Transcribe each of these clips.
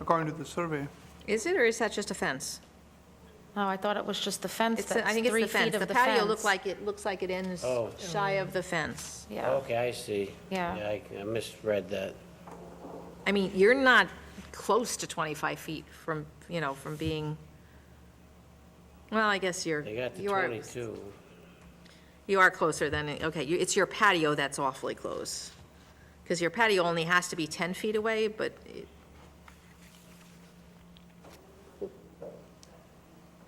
according to the survey. Is it, or is that just a fence? No, Oh, I thought it was just the fence It's, the- I that's think it's three the feet fence. of The the fence. patio look like, it looks like it ends Oh. shy of the fence. Yeah, Okay, I see. Yeah. I- I misread that. I mean, you're not close to 25 feet from, you know, from being, well, I guess you're, They got the you are, 22. you are closer than, it- okay, you- it's your patio that's awfully close. Because your patio only has to be 10 feet away, but it-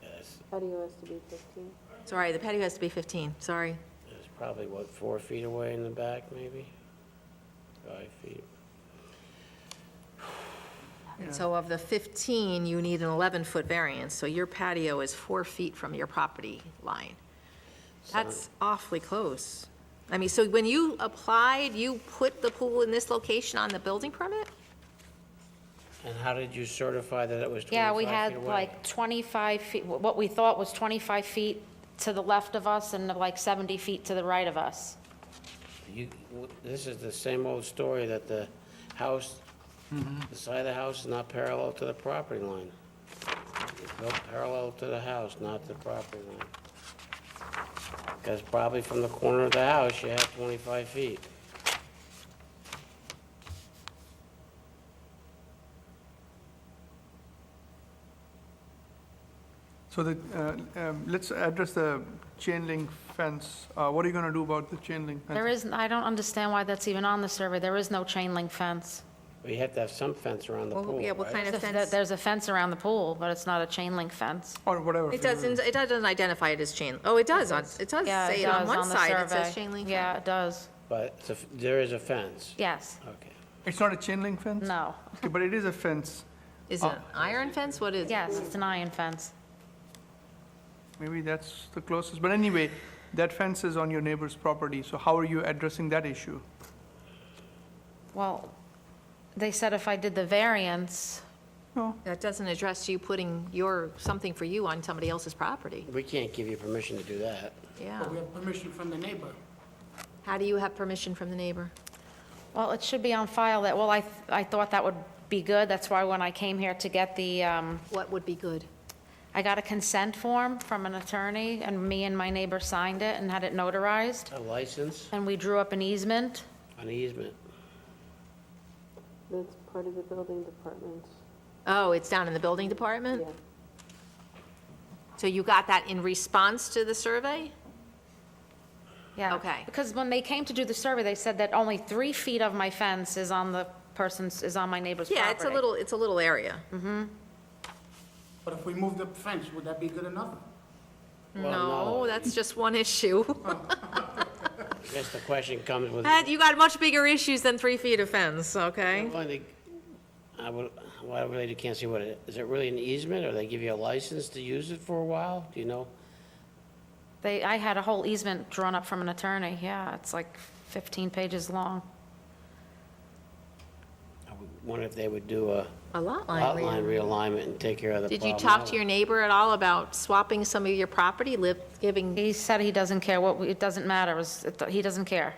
Yes, Patio has to be 15. Sorry, the patio has to be 15, sorry. It's probably, what, four feet away in the back, maybe? Five feet. And so of the 15, you need an 11-foot variance, so your patio is four feet from your property line. That's awfully close. I mean, so when you applied, you put the pool in this location on the building permit? And how did you certify that it was 25 feet away? yeah, we had like 25 feet, wh- what we thought was 25 feet to the left of us and like 70 feet to the right of us. You- w- This is the same old story that the house, the side of the house is not parallel to the property line. It's built parallel to the house, not the property line. Because probably from the corner of the house, you have 25 feet. So the, uh, um, let's address the chain link fence. Uh, What are you going to do about the chain link fence? There is, I don't understand why that's even on the survey, there is no chain link fence. But you have to have some fence around the Well, pool, yeah, what right? kind And a Th- fence- There's a fence around the pool, but it's not a chain link fence. Or whatever. It doesn't, it doesn't identify it as chain, oh, it does, on- it does Yeah, say it on does one the side, it survey. says chain link. Yeah, it does, But it's a f- there is a fence. yes, Okay. It's not a chain link fence? no, Okay, But it is a fence. Is it an iron fence, what is? it? yes, it's an iron fence. Maybe that's the closest. But anyway, that fence is on your neighbor's property, so how are you addressing that issue? Well, they said if I did the variance, No, That doesn't address you putting your, something for you on somebody else's property, We can't give you permission to do that. yeah. But we have permission from the neighbor. How do you have permission from the neighbor? well, it should be on file that, well, I, th- I thought that would be good, that's why when I came here to get the, um, What would be good? I got a consent form from an attorney, and me and my neighbor signed it and had it notarized, A license, and we drew up an easement. an easement. That's part of the building department. Oh, it's down in the building department? Yeah. So you got that in response to the survey? Yeah. Okay. Because when they came to do the survey, they said that only three feet of my fence is on the person's, is on my neighbor's property. Yeah, it's a little, it's a little area. But if we move the fence, would that be good enough? Well, No, that's just one issue. I guess the question comes with. Ed, You got much bigger issues than three feet of fence, okay? Well, I think- I would, well, I really can't see what it, is it really an easement, or they give you a license to use it for a while, do you know? They, I had a whole easement drawn up from an attorney, yeah, it's like 15 pages long. I would wonder if they would do a A lot line. outline read. realignment and take care of the Did problem. you talk to your neighbor at all about swapping some of your property, live, giving? He said he doesn't care, what, we- it doesn't matter, it's- it- he doesn't care.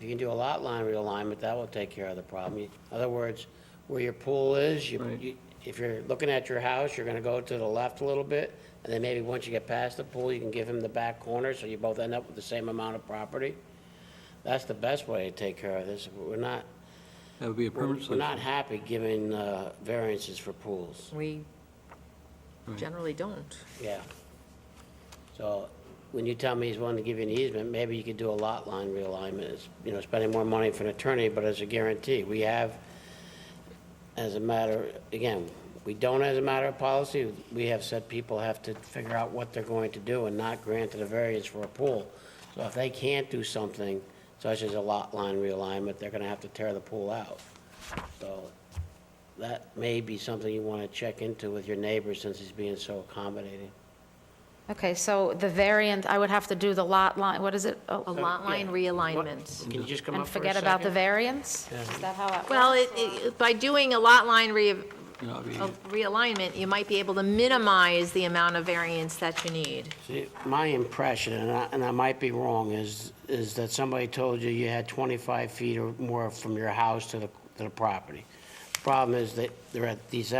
You can do a lot line realignment, that will take care of the problem. You- In other words, where your pool is, you, you- if you're looking at your house, you're gonna go to the left a little bit, and then maybe once you get past the pool, you can give him the back corner, so you both end up with the same amount of property. That's the best way to take care of this, we're not, That would be a We're permanent we're solution. not happy giving uh, variances for pools, We generally don't. yeah. So when you tell me he's willing to give you an easement, maybe you could do a lot line realignment, It's, you know, spending more money for an attorney, but as a guarantee. We have, as a matter, again, we don't as a matter of policy, we have said people have to figure out what they're going to do and not grant a variance for a pool. So if they can't do something such as a lot line realignment, they're gonna have to tear the pool out. So that may be something you want to check into with your neighbor since he's being so accommodating. Okay, so the variant, I would have to do the lot line, what is it? Oh, A lot line realignment. Can you just come And up for a forget about the second? variance? Is that how that Well, works? it- it, by doing a lot line re, You know, I mean, of realignment, you might be able to minimize the amount of variance that you need. See, My impression, and I, and I might be wrong, is, is that somebody told you you had 25 feet or more from your house to the, to the property. Problem is that they're at these